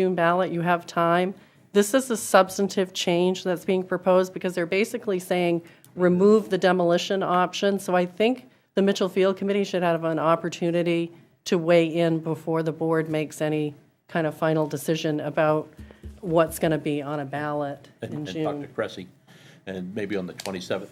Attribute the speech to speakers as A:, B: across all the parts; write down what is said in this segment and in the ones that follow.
A: June ballot, you have time. This is a substantive change that's being proposed because they're basically saying, remove the demolition option. So I think the Mitchell Field Committee should have an opportunity to weigh in before the board makes any kind of final decision about what's going to be on a ballot in
B: and and talk to
A: June.
B: Cressy, and maybe on the 27th.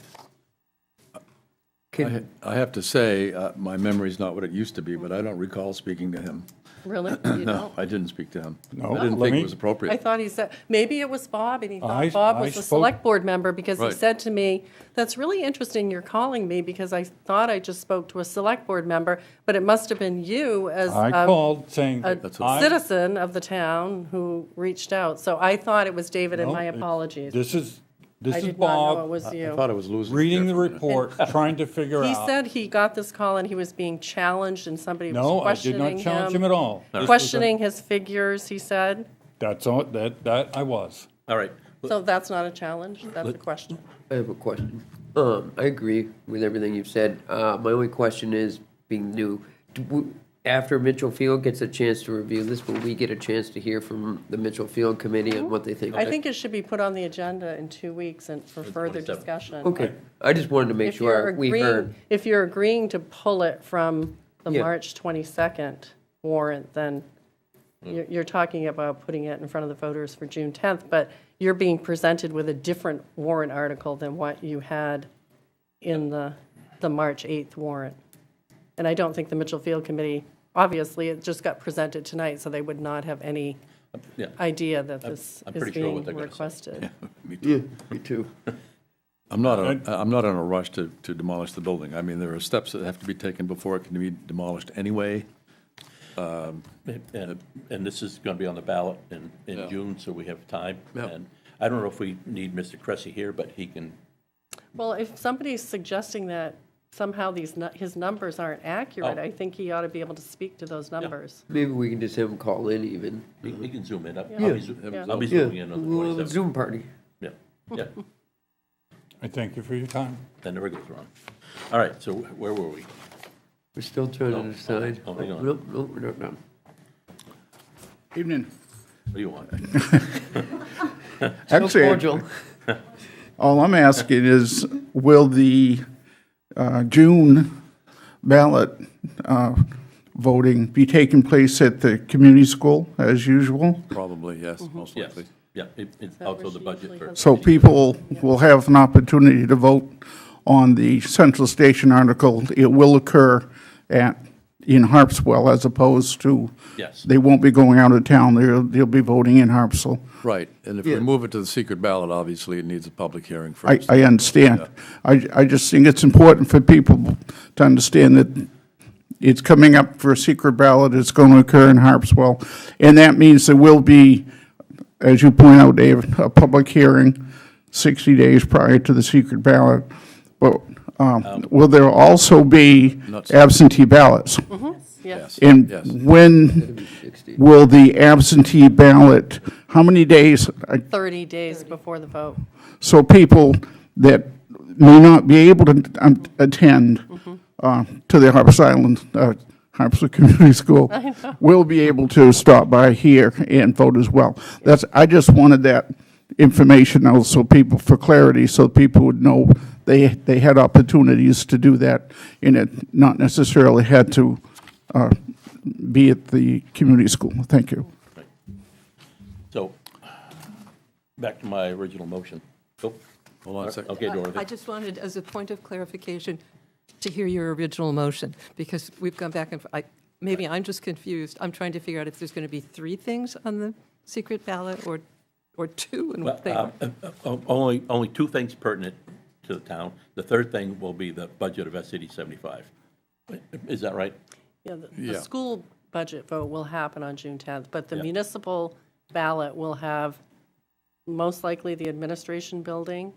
C: I I have to say, uh, my memory's not what it used to be, but I don't recall speaking to him.
A: Really? You
C: No,
A: don't?
C: I didn't speak to him.
D: No,
C: I didn't
D: let
C: think
D: me-
C: it was appropriate.
A: I thought he said, maybe it was Bob, and he
D: I-
A: thought Bob
D: I
A: was the
D: spoke-
A: select board member, because he
C: Right.
A: said to me, that's really interesting, you're calling me, because I thought I just spoke to a select board member, but it must have been you as
D: I
A: Um, a
D: called saying that I,
A: citizen of the town who reached out. So I thought it was David, and my
D: No, it-
A: apologies.
D: this is, this
A: I
D: is
A: did not know it
D: Bob,
A: was
C: I
A: you.
C: thought it was losing.
D: reading the
C: Jeffrey.
D: report, trying to figure
A: He
D: out.
A: said he got this call and he was being challenged, and somebody was
D: No, I did
A: questioning him.
D: not challenge him at all. This was a-
A: Questioning his figures, he said.
D: That's all, that, that I was.
B: All right, Well,
A: So that's not a challenge, that's a question.
E: I have a question. Um, I agree with everything you've said. Uh, my only question is, being new, do we- after Mitchell Field gets a chance to review this, will we get a chance to hear from the Mitchell Field committee on what they think?
A: I think it should be put on the agenda in two weeks and for further
B: 27th.
A: discussion.
E: Okay, I just wanted to make
A: If you're
E: sure we heard.
A: agreeing, if you're agreeing to pull it from the
E: Yeah.
A: March 22nd warrant, then
B: Hmm.
A: you're, you're talking about putting it in front of the voters for June 10th, but you're being presented with a different warrant article than what you had in the, the March 8th warrant. And I don't think the Mitchell Field Committee, obviously, it just got presented tonight, so they would not have any
B: yeah,
A: idea that this
B: I'm
A: is
B: pretty sure what
A: being
B: they're gonna say.
A: requested.
E: Yeah, me too.
C: I'm not, a- I'm not in a rush to, to demolish the building. I mean, there are steps that have to be taken before it can be demolished anyway.
B: and, uh, and this is going to be on the ballot in, in June, so we have time. And I don't know if we need Mr. Cressy here, but he can,
A: Well, if somebody's suggesting that somehow these, nu- his numbers aren't accurate,
B: Oh.
A: I think he ought to be able to speak to those numbers.
E: Maybe we can just have them call in even.
B: he he can zoom in. I'll I'll be zo-
A: Yeah.
B: I'll be
E: Yeah,
B: zooming in on the
E: we'll have a
B: 27th.
E: Zoom party.
B: Yeah, yeah,
D: I thank you for your time.
B: that never goes wrong. All right, so where were we?
E: We're still trying
B: Oh,
E: to decide.
B: oh, hang on.
E: Nope, nope, we're not done.
F: Evening.
B: What do you want?
E: Still cordial.
F: Actually, all I'm asking is, will the uh, June ballot uh, voting be taking place at the community school as usual?
C: Probably, yes, most
B: Yes,
C: likely.
B: yeah, it- it's
A: that
B: also
A: where
B: the
A: she
B: budget
A: usually
B: for,
A: has-
F: So people will have an opportunity to vote on the Central Station article. It will occur at, in Harpswell as opposed to.
B: Yes.
F: They won't be going out of town. They'll, they'll be voting in Harpswell.
C: Right, and if we move it to the secret ballot, obviously, it needs a public hearing
F: I,
C: first.
F: I understand. I, I just think it's important for people to understand that it's coming up for a secret ballot, it's going to occur in Harpswell. And that means there will be, as you point out, Dave, a public hearing 60 days prior to the secret ballot. But um, will there also be
C: Not- Mm-hmm.
F: absentee ballots?
A: Yes,
C: Yes.
F: And when will the absentee ballot, how many days, I
A: 30 days before the vote.
F: so people that may not be able to um, attend uh, to the Harpers Island, uh, Harpers Community School, will be able to stop by here and vote as well. That's, I just wanted that information out so people, for clarity, so people would know they, they had opportunities to do that, and it not necessarily had to uh, be at the community school. Thank you.
B: right. So, back to my original motion. Oh,
C: Hold on a second.
B: Okay,
G: I
B: Dorothy.
G: just wanted, as a point of clarification, to hear your original motion, because we've gone back and, I- maybe I'm just confused. I'm trying to figure out if there's going to be three things on the secret ballot or, or two and what they are.
B: Um, uh, uh, Only, only two things pertinent to the town. The third thing will be the budget of SCD 75. Is that right?
A: Yeah, the-
C: Yeah.
A: the school budget vote will happen on June 10th, but the
B: Yeah.
A: municipal ballot will have most likely the administration building,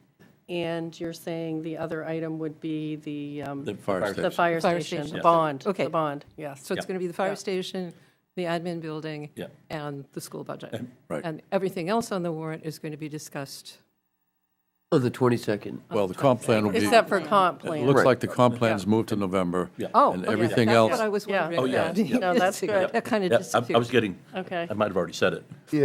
A: and you're saying the other item would be the, um,
B: The
C: Fire
B: fire
C: station.
A: the fire
G: Fire
A: station,
G: station.
A: the
G: Yeah.
A: bond,
G: Okay.
A: the bond, yes.
G: So it's going to be the fire station, the admin building,
B: Yeah.
G: and the school budget.
C: Right.
G: And everything else on the warrant is going to be discussed.
E: On Oh, the 22nd.
C: Well, the comp plan will be, it
A: Except for comp plan.
C: looks like the comp plan's moved to November.
B: Yeah.
G: Oh,
C: And
G: okay,
C: everything
G: that's
C: else.
G: what I was
A: Yeah.
G: wondering.
A: Oh,
B: yeah,
G: about.
B: yeah.
A: No, that's good.
G: That kind of
B: Yeah, I- I was
G: disappeared.
B: getting,
A: Okay.
B: I might have already said it.